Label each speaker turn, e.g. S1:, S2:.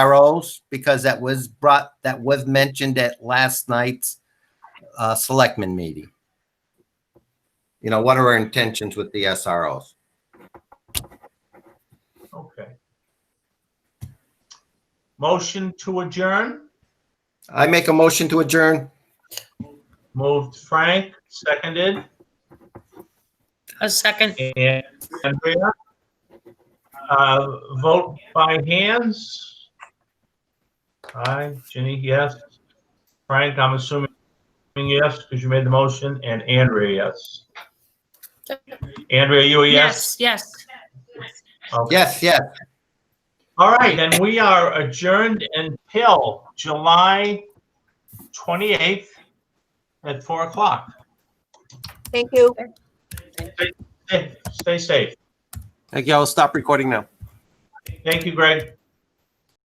S1: arrows because that was brought, that was mentioned at last night's uh, selectmen meeting. You know, what are our intentions with the SROs?
S2: Okay. Motion to adjourn,
S1: I make a motion to adjourn.
S2: moved Frank, seconded,
S3: A second.
S2: and Andrea. Uh, Vote by hands. Aye, Ginny, yes. Frank, I'm assuming yes, because you made the motion, and Andrea, yes. Andrea, you a yes?
S3: Yes, yes.
S2: Okay.
S1: Yes, yes.
S2: All right, and we are adjourned until July 28th at 4 o'clock.
S4: Thank you.
S2: Stay stay safe.
S5: Thank you. I'll stop recording now.
S2: Thank you, Greg.